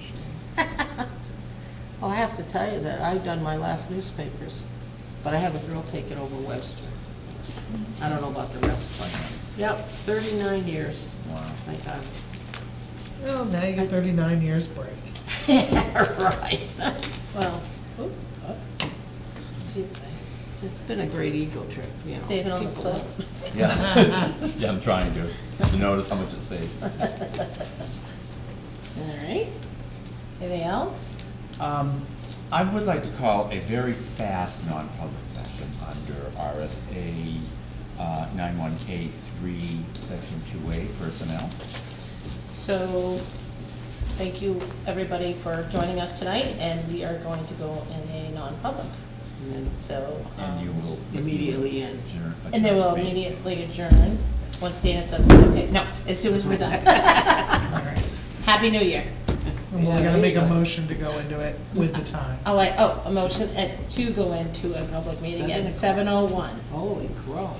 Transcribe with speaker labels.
Speaker 1: have to tell you that I've done my last newspapers, but I have a girl take it over Webster. I don't know about the rest, but, yep, thirty-nine years,
Speaker 2: Wow.
Speaker 1: my God.
Speaker 3: Well, now you get thirty-nine years break.
Speaker 1: Right. Well, oop, oop,
Speaker 4: Excuse me.
Speaker 1: it's been a great ego trip, you know.
Speaker 4: Save it on the
Speaker 1: People-
Speaker 4: clip.
Speaker 2: Yeah, yeah, I'm trying to, to notice how much it saves.
Speaker 4: All right. Anything else?
Speaker 2: Um, I would like to call a very fast non-public session under RSA uh, nine-one A three, section two A, personnel.
Speaker 4: So, thank you, everybody, for joining us tonight, and we are going to go in a non-public,
Speaker 1: And then it's
Speaker 4: so.
Speaker 2: And you
Speaker 4: um,
Speaker 2: will.
Speaker 1: Immediately in.
Speaker 2: Adjourn-
Speaker 4: And they will
Speaker 2: adjourn.
Speaker 4: immediately adjourn, once Dana says it's okay. No, as soon as we're done. Happy New Year.
Speaker 3: And
Speaker 1: Yeah,
Speaker 3: we're
Speaker 1: there
Speaker 3: gonna make
Speaker 1: you
Speaker 3: a
Speaker 1: go.
Speaker 3: motion to go into it with the time.
Speaker 4: Oh, uh, I, oh, a motion at, to go into a public meeting at seven oh one.
Speaker 1: Holy crow.